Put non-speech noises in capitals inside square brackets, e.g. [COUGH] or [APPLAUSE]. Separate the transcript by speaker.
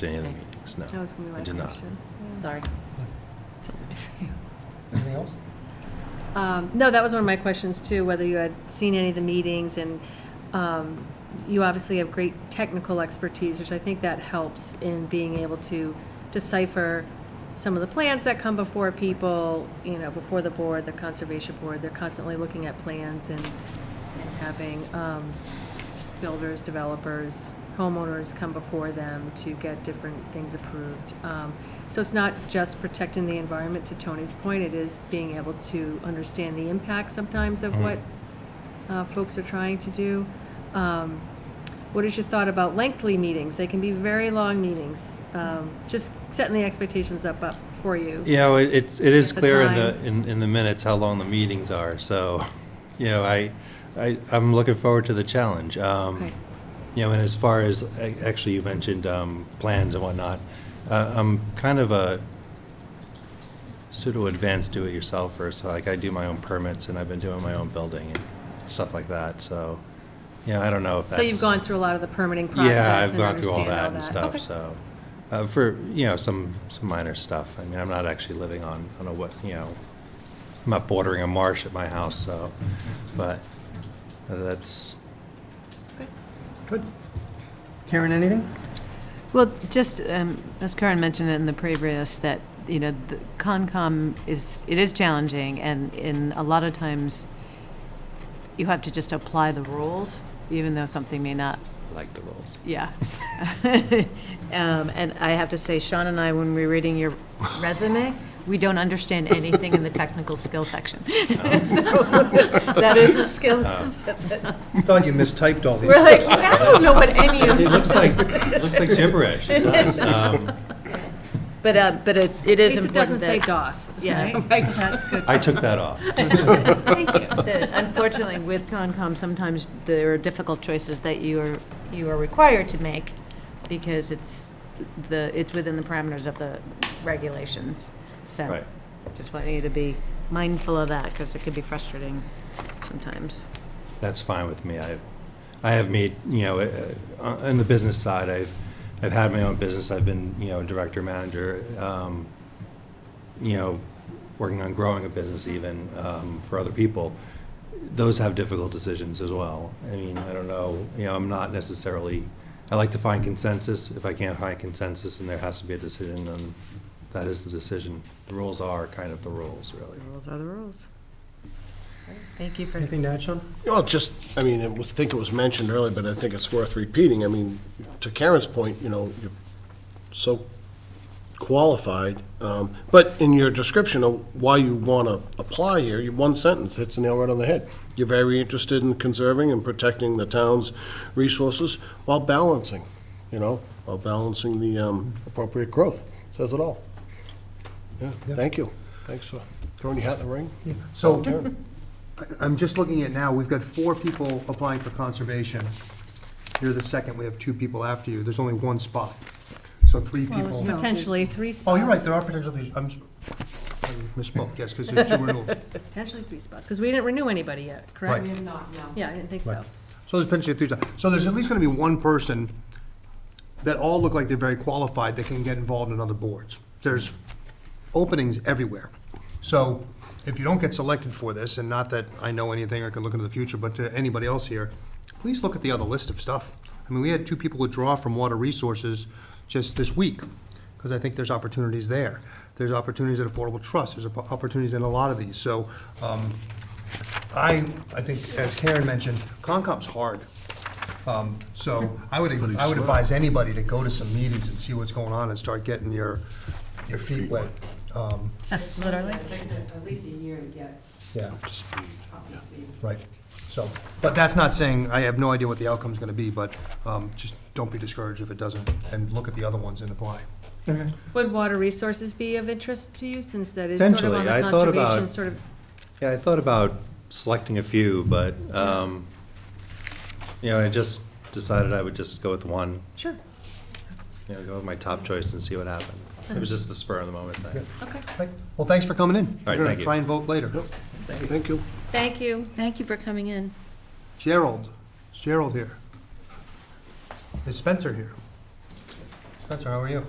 Speaker 1: to any of the
Speaker 2: Okay.
Speaker 1: meetings, no.
Speaker 2: That was gonna be
Speaker 1: I
Speaker 2: my
Speaker 1: did not.
Speaker 2: question.
Speaker 3: Sorry.
Speaker 4: Anything else?
Speaker 2: [LAUGHS] Um, No, that was one of my questions too, whether you had seen any of the meetings and um, you obviously have great technical expertise, which I think that helps in being able to decipher some of the plans that come before people, you know, before the board, the conservation board, they're constantly looking at plans and, and having um, builders, developers, homeowners come before them to get different things approved. Um, So it's not just protecting the environment, to Tony's point, it is being able to understand the impact sometimes
Speaker 1: Mm-hmm.
Speaker 2: of what uh, folks are trying to do. Um, What is your thought about lengthy meetings? They can be very long meetings, Um, just setting the expectations up, up for you.
Speaker 1: You know, it, it's- it is
Speaker 2: At the
Speaker 1: clear in the,
Speaker 2: time.
Speaker 1: in, in the minutes how long the meetings are, so, [LAUGHS] you know, I, I, I'm looking forward to the challenge. Um,
Speaker 2: Okay.
Speaker 1: You know, and as far as, a- actually, you mentioned, um, plans and whatnot, uh, I'm kind of a pseudo-advanced do-it-yourselfer, so like, I do my own permits, and I've been doing my own building and stuff like that, so, you know, I don't know if that's.
Speaker 2: So you've gone through a lot of the permitting
Speaker 1: Yeah,
Speaker 2: process
Speaker 1: I've
Speaker 2: and
Speaker 1: gone through all
Speaker 2: understand
Speaker 1: that and
Speaker 2: all that.
Speaker 1: stuff, so, uh, for, you know, some, some minor stuff. I mean, I'm not actually living on, on a, wet- you know, I'm not bordering a marsh at my house, so, but that's,
Speaker 4: Good. Karen, anything?
Speaker 3: Well, just, um, as Karen mentioned in the previous, that, you know, the Concom is, it is challenging, and in, a lot of times, you have to just apply the rules, even though something may not
Speaker 1: I like the rules.
Speaker 3: Yeah. [LAUGHS] Um, And I have to say, Sean and I, when we we're reading your resume, we don't understand anything in the technical skill section. [LAUGHS] So, That is a skill.
Speaker 4: You thought you mistyped all these.
Speaker 3: We're like, I don't know what any of.
Speaker 1: It looks
Speaker 2: [LAUGHS]
Speaker 1: like, it looks like gibberish. It does. Um,
Speaker 3: But, uh, but it it
Speaker 2: At least
Speaker 3: is
Speaker 2: it
Speaker 3: important
Speaker 2: doesn't say
Speaker 3: that-
Speaker 2: DOS,
Speaker 3: [LAUGHS] Yeah.
Speaker 2: right? So that's good.
Speaker 1: I took that off.
Speaker 2: [LAUGHS] Thank you.
Speaker 3: that unfortunately with Concom, sometimes there are difficult choices that you are, you are required to make because it's the, it's within the parameters of the regulations. So
Speaker 1: Right.
Speaker 3: just want you to be mindful of that because it could be frustrating sometimes.
Speaker 1: That's fine with me. I, I have made, you know, uh, on the business side, I've, I've had my own business. I've been, you know, director, manager, um, you know, working on growing a business even um, for other people. Those have difficult decisions as well. I mean, I don't know, you know, I'm not necessarily, I like to find consensus. If I can't find consensus and there has to be a decision, then that is the decision. The rules are kind of the rules, really.
Speaker 3: The rules are the rules. Thank you for,
Speaker 4: Anything to add, Sean?
Speaker 5: Well, just, I mean, it was, I think it was mentioned earlier, but I think it's worth repeating. I mean, to Karen's point, you know, you're so qualified, um, but in your description of why you want to apply here, your one sentence hits the nail right on the head. You're very interested in conserving and protecting the town's resources while balancing, you know, while balancing the um, appropriate growth. Says it all. Yeah,
Speaker 4: Yeah.
Speaker 5: thank you. Thanks for throwing your hat in the ring.
Speaker 4: So,
Speaker 5: Volunteering.
Speaker 4: I- I'm just looking at now, we've got four people applying for conservation. You're the second, we have two people after you, there's only one spot. So three people.
Speaker 2: Potentially three spots.
Speaker 4: Oh, you're right, there are potentially, I'm, s- I misspoke, yes, because there's two renewals.
Speaker 2: Potentially three spots, because we didn't renew anybody yet, correct?
Speaker 4: Right. We
Speaker 2: have not, no. Yeah, I didn't think so.
Speaker 4: Right. So there's potentially three, ti- so there's at least gonna be one person that all look like they're very qualified that can get involved in other boards. There's openings everywhere. So if you don't get selected for this, and not that I know anything or can look into the future, but to anybody else here, please look at the other list of stuff. I mean, we had two people withdraw from Water Resources just this week, because I think there's opportunities there. There's opportunities at Affordable Trust, there's oppo- opportunities in a lot of these. So, um, I, I think, as Karen mentioned, Concom's hard. Um, So I would, I would advise anybody to go to some meetings and see what's going on and start getting your, your feet wet. Um,
Speaker 3: literally.
Speaker 6: It takes at at least a year to get
Speaker 4: Yeah,
Speaker 6: up to speed.
Speaker 4: right. So, but that's not saying, I have no idea what the outcome's gonna be, but um, just don't be discouraged if it doesn't, and look at the other ones and apply.
Speaker 2: Would water resources be of interest to you, since that is sort of on
Speaker 1: Potentially.
Speaker 2: the
Speaker 1: I thought
Speaker 2: conservation,
Speaker 1: about-
Speaker 2: sort of,
Speaker 1: Yeah, I thought about selecting a few, but, um, you know, I just decided I would just go with one,
Speaker 2: sure,
Speaker 1: you know, go with my top choice and see what happened. It was just the spur of the moment thing.
Speaker 2: okay.
Speaker 4: Okay. Well, thanks for coming in.
Speaker 1: right,
Speaker 4: We're
Speaker 1: thank
Speaker 4: gonna
Speaker 1: you.
Speaker 4: try and vote later.
Speaker 5: Thank you.
Speaker 2: Thank you.
Speaker 3: Thank you for coming in.
Speaker 4: Gerald, is Gerald here? Is Spencer here? Spencer, how are you?